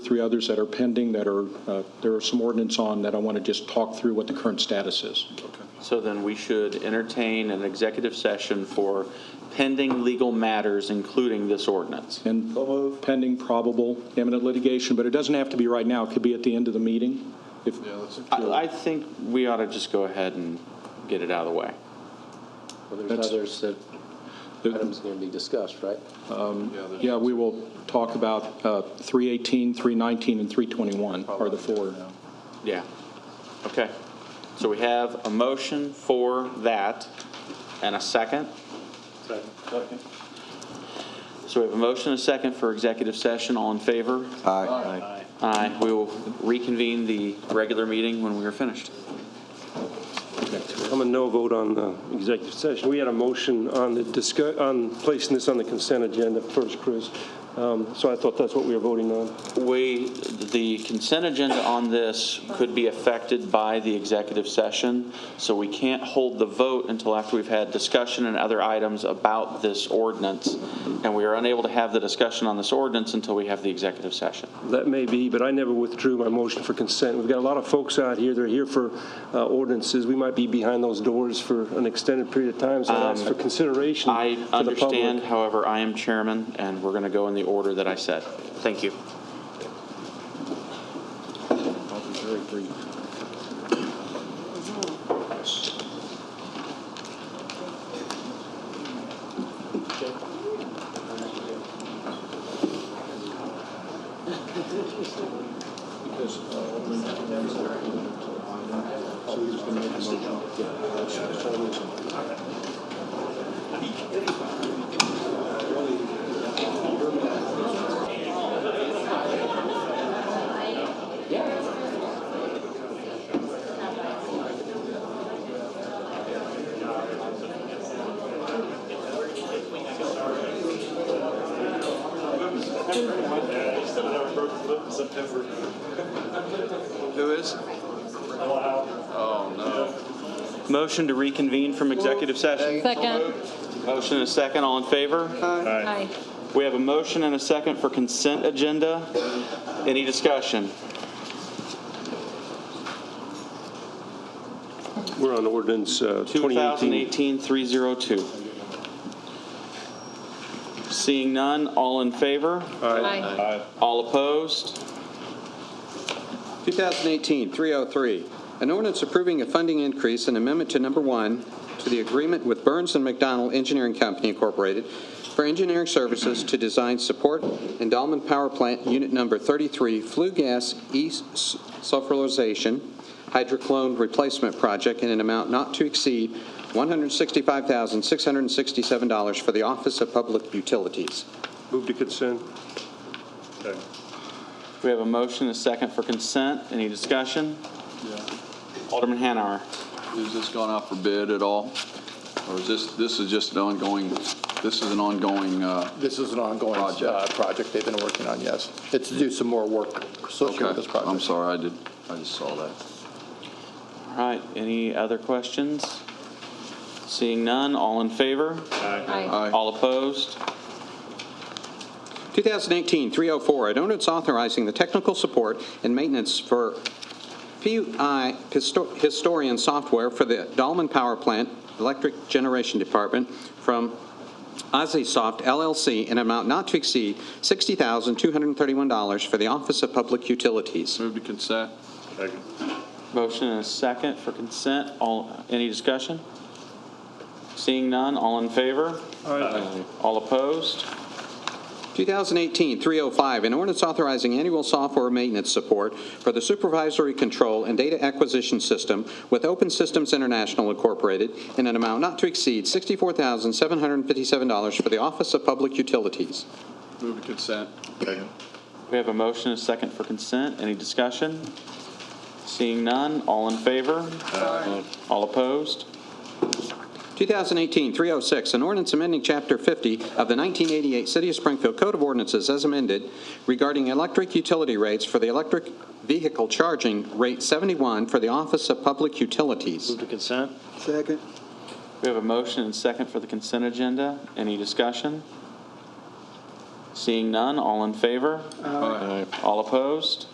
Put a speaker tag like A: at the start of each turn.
A: three others that are pending that are, uh, there are some ordinance on that I want to just talk through what the current status is.
B: So then we should entertain an executive session for pending legal matters, including this ordinance.
A: And pending probable imminent litigation, but it doesn't have to be right now. It could be at the end of the meeting. If,
B: I, I think we ought to just go ahead and get it out of the way.
C: Well, there's
A: That's-
C: others that,
A: The-
C: items going to be discussed, right?
A: yeah, we will talk about uh, 318, 319, and 321 are the four.
B: Yeah. Okay. So we have a motion for that and a second. So we have a motion and a second for executive session. All in favor?
C: Aye.
B: Aye. We will reconvene the regular meeting when we are finished.
D: I'm a no vote on the executive session. We had a motion on the discuss, on placing this on the consent agenda first, Chris. Um, So I thought that's what we were voting on.
B: We, the consent agenda on this could be affected by the executive session, so we can't hold the vote until after we've had discussion and other items about this ordinance. And we are unable to have the discussion on this ordinance until we have the executive session.
D: That may be, but I never withdrew my motion for consent. We've got a lot of folks out here, they're here for uh, ordinances. We might be behind those doors for an extended period of time, so I ask for consideration
B: Um, I
D: for the
B: understand,
D: public.
B: however, I am chairman, and we're going to go in the order that I said. Thank you.
E: Who is?
B: Motion to reconvene from executive session.
F: Second.
B: Motion and a second, all in favor?
F: Aye.
B: We have a motion and a second for consent agenda. Any discussion?
D: We're on ordinance uh, 2018.
B: 2018-302. Seeing none, all in favor?
F: Aye.
B: All opposed?
E: 2018-303, an ordinance approving a funding increase and amendment to number one to the agreement with Burns and McDonnell Engineering Company Incorporated for engineering services to design support endowment power plant unit number 33 flue gas e-sulfurization hydroclone replacement project in an amount not to exceed $165,667 for the Office of Public Utilities.
D: Move to consent.
B: We have a motion and a second for consent. Any discussion? Alderman Hanauer.
G: Has this gone out for bid at all? Or is this, this is just an ongoing, this is an ongoing, uh,
H: This is an ongoing
G: Project.
H: uh, project they've been working on, yes. It's to do some more work associated
G: okay,
H: with this
G: I'm
H: project.
G: sorry, I did, I just saw that.
B: All right, any other questions? Seeing none, all in favor?
F: Aye.
G: Aye.
B: All opposed?
E: 2018-304, an ordinance authorizing the technical support and maintenance for PUI histo- historian software for the Dolman Power Plant Electric Generation Department from Soft LLC in an amount not to exceed $60,231 for the Office of Public Utilities.
G: Move to consent.
B: Motion and a second for consent. All, any discussion? Seeing none, all in favor? Aye. All opposed?
E: 2018-305, an ordinance authorizing annual software maintenance support for the supervisory control and data acquisition system with Open Systems International Incorporated in an amount not to exceed $64,757 for the Office of Public Utilities.
G: Move to consent.
B: We have a motion and a second for consent. Any discussion? Seeing none, all in favor? Aye. All opposed?
E: 2018-306, an ordinance amending Chapter 50 of the 1988 City of Springfield Code of Ordinances as amended regarding electric utility rates for the electric vehicle charging rate 71 for the Office of Public Utilities.
C: to consent?
B: We have a motion and second for the consent agenda. Any discussion? Seeing none, all in favor?
G: Aye.
B: All opposed?